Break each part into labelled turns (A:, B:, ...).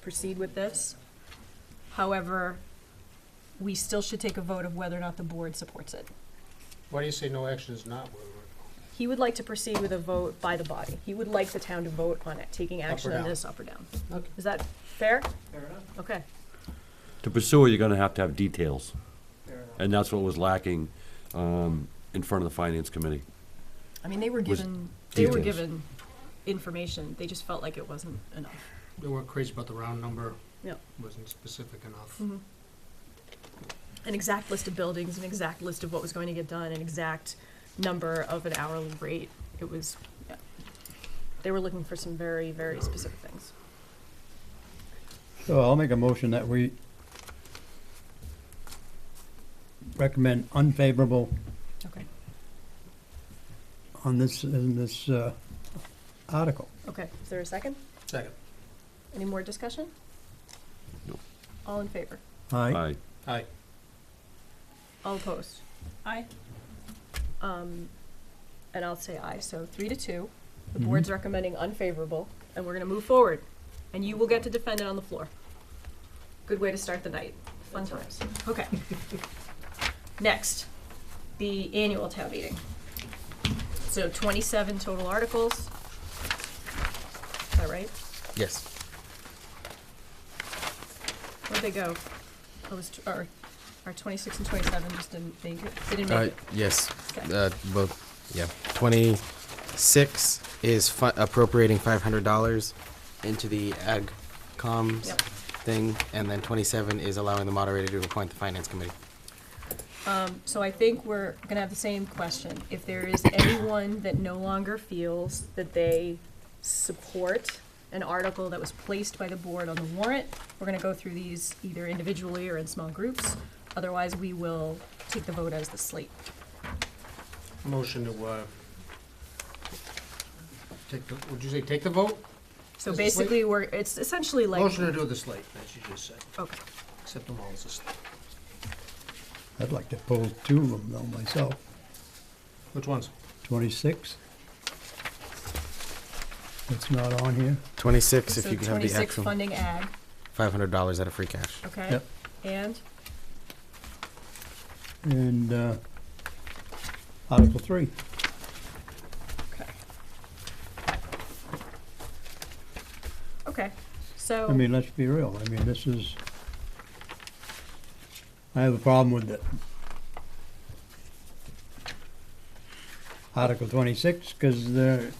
A: proceed with this. However, we still should take a vote of whether or not the board supports it.
B: Why do you say no action is not? where we're-
A: He would like to proceed with a vote by the body. He would like the town to vote on it, taking action on
B: down?
A: this up or down.
B: Okay.
A: Is that fair? Okay.
C: To pursue it, you're gonna have to have details. And that's what was lacking, um, in front of the finance committee.
A: I mean, they were
C: Was
A: given, they were
C: details.
A: given information. They just felt like it wasn't enough.
B: They weren't crazy about the round number.
A: Yep.
B: Wasn't specific enough.
A: Mhm. An exact list of buildings, an exact list of what was going to get done, an exact number of an hourly rate. It was, yeah. They were looking for some very, very specific things.
D: So I'll make a motion that we recommend unfavorable
A: Okay.
D: on this, in this, uh, article.
A: Okay, is there a second?
B: Second.
A: Any more discussion?
C: No.
A: All in favor?
D: Aye.
C: Aye.
B: Aye.
A: All opposed? Aye. Um, and I'll say aye, so three to two. The board's recommending unfavorable, and we're gonna move forward. And you will get to defend it on the floor. Good way to start the night. Fun times. Okay. Next, the annual town meeting. So twenty-seven total articles. Is that right?
E: Yes.
A: Where'd they go? I was, tw- or, our twenty-six and twenty-seven just didn't make it, they didn't
E: Uh,
A: make it.
E: yes.
A: Okay.
E: Uh, both. Yeah. Twenty six is fu- appropriating five hundred dollars into the ag comms
A: Yep.
E: thing, and then twenty seven is allowing the moderator to appoint the finance committee.
A: Um, so I think we're gonna have the same question. If there is anyone that no longer feels that they support an article that was placed by the board on the warrant, we're gonna go through these either individually or in small groups. Otherwise, we will take the vote as the slate.
B: Motion to, uh, take the, would you say take the vote?
A: So
B: As the slate?
A: basically, we're, it's essentially like.
B: Motion to do the slate, as you just said.
A: Okay.
B: Accept them all as a slate.
D: I'd like to pull two of them though myself,
B: Which ones?
D: twenty-six. It's not on here.
E: Twenty six, if
A: So
E: you can have the
A: twenty-six
E: actual
A: funding ag,
E: five hundred dollars out of free cash.
A: okay?
D: Yep.
A: And,
D: And, uh, Article three.
A: okay. Okay, so.
D: I mean, let's be real. I mean, this is, I have a problem with it. Article twenty-six, because they're,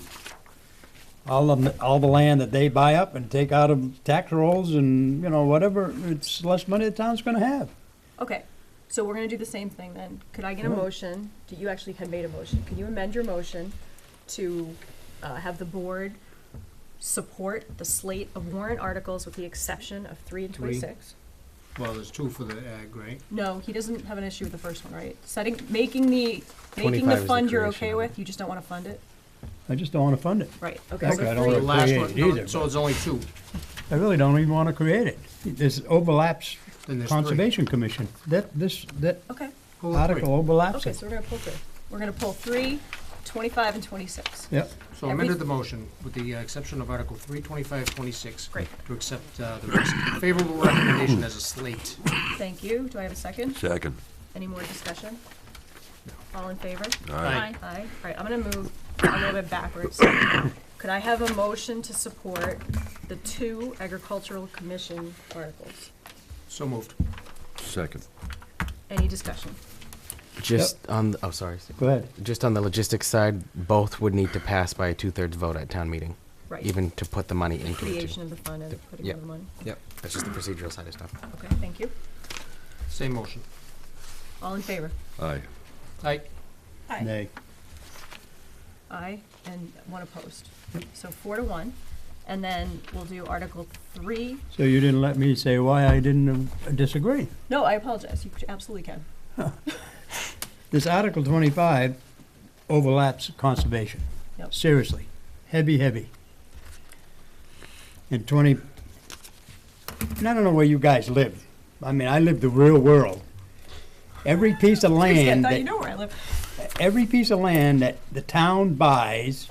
D: all of, 'em- all the land that they buy up and take out of tax rolls and, you know, whatever, it's less money the town's gonna have.
A: Okay, so we're gonna do the same thing then. Could I get a
D: Sure.
A: motion? Do You actually had made a motion. Can you amend your motion to uh, have the board support the slate of warrant articles with the exception of three and
B: Three.
A: twenty-six?
B: Well, there's two for the ag, right?
A: No, he doesn't have an issue with the first one, right? Setting, making the, making
E: 25
A: the
E: is the
A: fund you're
E: creation
A: okay
E: of it.
A: with, you just don't wanna fund it?
D: I just don't wanna fund it.
A: Right, okay,
D: Okay, I
A: so
B: The
D: don't
A: three,
D: wanna-
B: last
D: create
B: one,
D: it
B: no,
D: either,
B: So
D: but-
B: it's only two,
D: I really don't even wanna create it. This overlaps
B: then there's three.
D: Conservation Commission. That, this, that
A: okay,
B: Pull the three.
D: article overlaps
A: okay,
D: it.
A: so we're gonna pull through. We're gonna pull three, twenty-five and twenty-six.
D: Yep.
B: So amended the motion with the uh, exception of Article three twenty-five twenty-six.
A: Great.
B: To accept, uh, the rec- favorable recommendation as a slate.
A: Thank you. Do I have a second?
C: Second.
A: Any more discussion? All in favor?
B: Aye.
A: Aye. All right, I'm gonna move a little bit backwards. Could I have a motion to support the two agricultural commission articles?
B: So moved.
C: Second.
A: Any discussion?
E: Just on the, oh sorry.
D: Go ahead.
E: Just on the logistics side, both would need to pass by a two thirds vote at town meeting,
A: Right,
E: even to put the money into it.
A: creation
E: Too.
A: of the fund and putting
E: Yep.
A: of the money.
E: Yep. That's just the procedural side of stuff.
A: Okay, thank you.
B: Same motion.
A: All in favor?
C: Aye.
B: Aye.
D: Nay.
A: Aye, and one opposed. So four to one. And then we'll do Article Three.
D: So you didn't let me say why I didn't uh, disagree.
A: No, I apologize. You absolutely can.
D: This Article twenty-five overlaps conservation.
A: Yep.
D: Seriously, heavy, heavy. And twenty, and I don't know where you guys live. I mean, I live the real world. Every piece
A: Seriously,
D: of
A: I
D: land,
A: thought you
D: that-
A: know where I live.
D: every piece of land that the town buys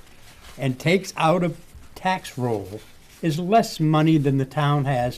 D: and takes out of tax roll is less money than the town has